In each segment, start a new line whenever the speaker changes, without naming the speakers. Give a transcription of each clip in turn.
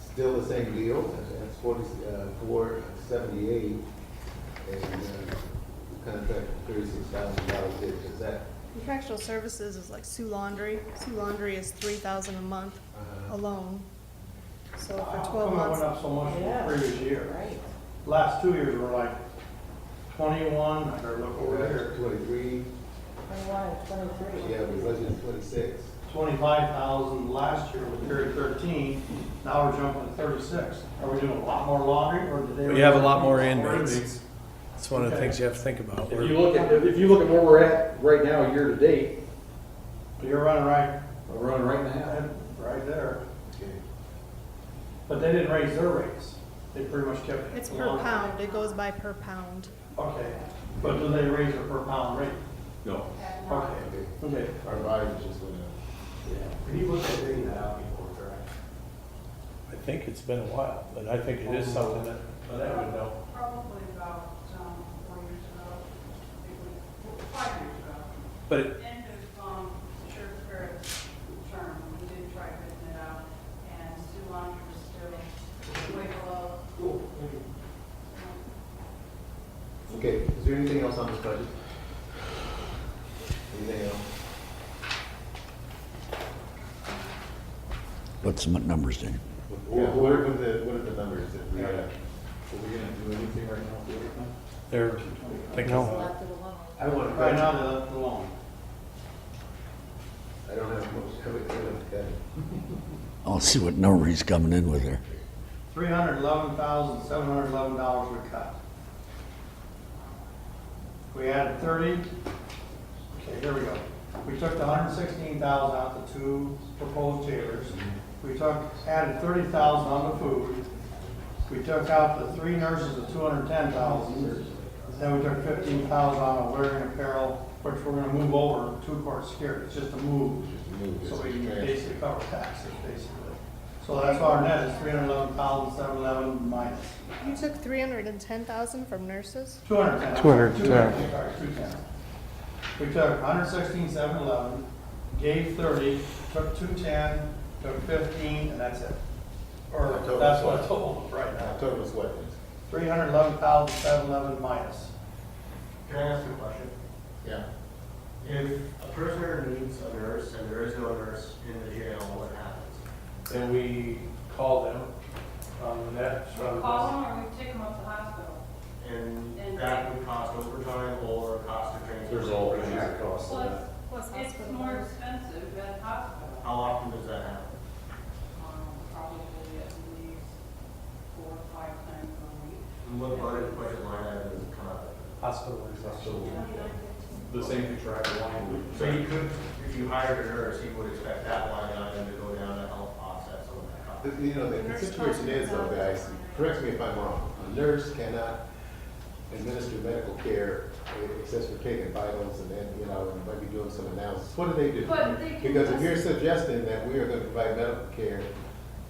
still the same deal, that's forty, uh, four seventy-eight, and, uh, contract thirty-six thousand dollars, did just that.
Contractual services is like Sue Laundry. Sue Laundry is three thousand a month
Uh,
alone. So
How
for twelve
come it went
months,
up so much from the
Yeah.
previous year?
Right.
Last two years were like twenty-one, I better look over here,
Twenty-three,
Twenty-one and twenty-three.
yeah, we budgeted twenty-six.
twenty-five thousand last year was very thirteen, now we're jumping to thirty-six. Are we doing a lot more laundry or did they?
We have a lot more
Already?
inmates. That's one of the things you have to think about.
If you look at, if you look at where we're at right now, year to date,
You're running right,
we're running right now.
right there,
Okay.
but they didn't raise their rates, they pretty much kept.
it's
the
per
laundry.
pound. It goes by per pound.
Okay, but do they raise their per pound rate?
No.
Okay, okay.
Our volume just went up.
Can you look at getting that out before, correct?
I think it's been a while, but I think it is something that, that I would know.
Probably about, um, four years ago, it was, five years ago.
But it,
End of, um, Sheriff Barrett's term, we did try putting it out, and Sue Laundrie was still way below.
Okay, is there anything else on this budget? Anything else?
Put some numbers in.
What, what are the, what are the numbers that we, uh, are we gonna do anything right now?
they're thinking about
Left it alone.
I want
Right now, they left it alone.
I don't have much, I haven't, I haven't got it.
I'll see what number he's coming in with there.
Three hundred eleven thousand, seven hundred eleven dollars we cut. We added thirty, okay, here we go. We took the hundred sixteen thousand out the two proposed jailers. We took, added thirty thousand on the food. We took out the three nurses of two hundred ten thousand. Then we took fifteen thousand on the wearing apparel, which we're gonna move over to court security, it's just a move. So we can basically cover taxes, basically. So that's why our net is three hundred eleven thousand, seven eleven minus
You took three hundred and ten thousand from nurses?
two hundred ten. Two hundred ten. Sorry, two ten. We took hundred sixteen, seven eleven, gave thirty, took two ten, took fifteen, and that's it. Or
Total.
that's what I told them right now.
October was what?
Three hundred eleven thousand, seven eleven minus.
Can I ask a question?
Yeah.
If a prisoner needs a nurse and there is no nurse in the jail, what happens?
it. Then we call them, um, that's
We call them or we take them up to hospital.
And that would cost overtime or cost of transportation.
There's all kinds of costs.
Plus, plus it's more expensive at hospital.
How often does that happen?
Um, Probably at least four or five times a week.
And what budget, budget line item does it come out
hospital
So
Twenty-nine
the same thing for every line.
of? So you could, if you hired a nurse, you would expect that line item to go down to help offset some of that cost.
The- You know, the- the situation is though, guys, correct me if I'm wrong, a nurse cannot administer medical care except for taking vitals and then, you know, and maybe doing some analysis. What do they do?
But they can
Because if
just-
you're suggesting that we are gonna provide medical care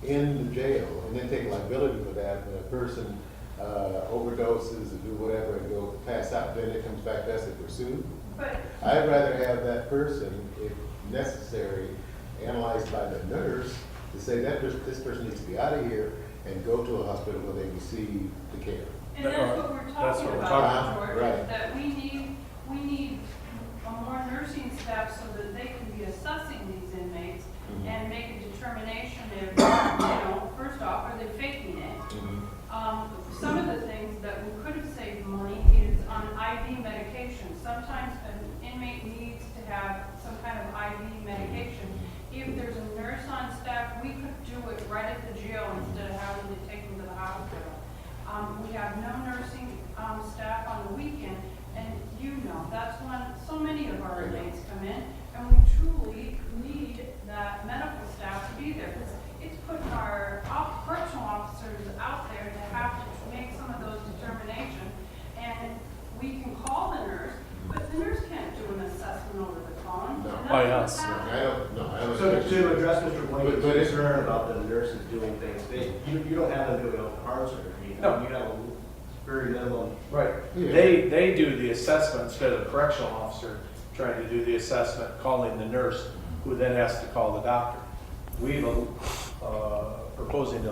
in the jail and then take liability for that, when a person uh, overdoses and do whatever and go pass out, then it comes back to us if we're sued.
But
I'd rather have that person, if necessary, analyzed by the nurse to say that this, this person needs to be out of here and go to a hospital where they receive the care.
And that's what we're
That's
talking
what we're
about,
talking about,
George, is
right.
that we need, we need a more nursing staff so that they can be assessing these inmates and make a determination if, you know, first off, are they faking it? Um, some of the things that we could have saved money is on IV medication. Sometimes an inmate needs to have some kind of IV medication. If there's a nurse on staff, we could do it right at the jail instead of having to take them to the hospital. Um, we have no nursing, um, staff on the weekend, and you know, that's when so many of our inmates come in, and we truly need that medical staff to be there, because it's putting our op- correctional officers out there to have to make some of those determinations, and we can call the nurse, but the nurse can't do an assessment over the phone.
No.
By us, no.
I don't, no, I don't.
So to address Mr.
But-
Blake's
but it's-
concern about the nurses doing things, they, you, you don't have them doing open heart surgery.
No.
You have a very minimum
Right.
Yeah.
They, they do the assessment instead of the correctional officer trying to do the assessment, calling the nurse, who then has to call the doctor. We've, uh, proposing to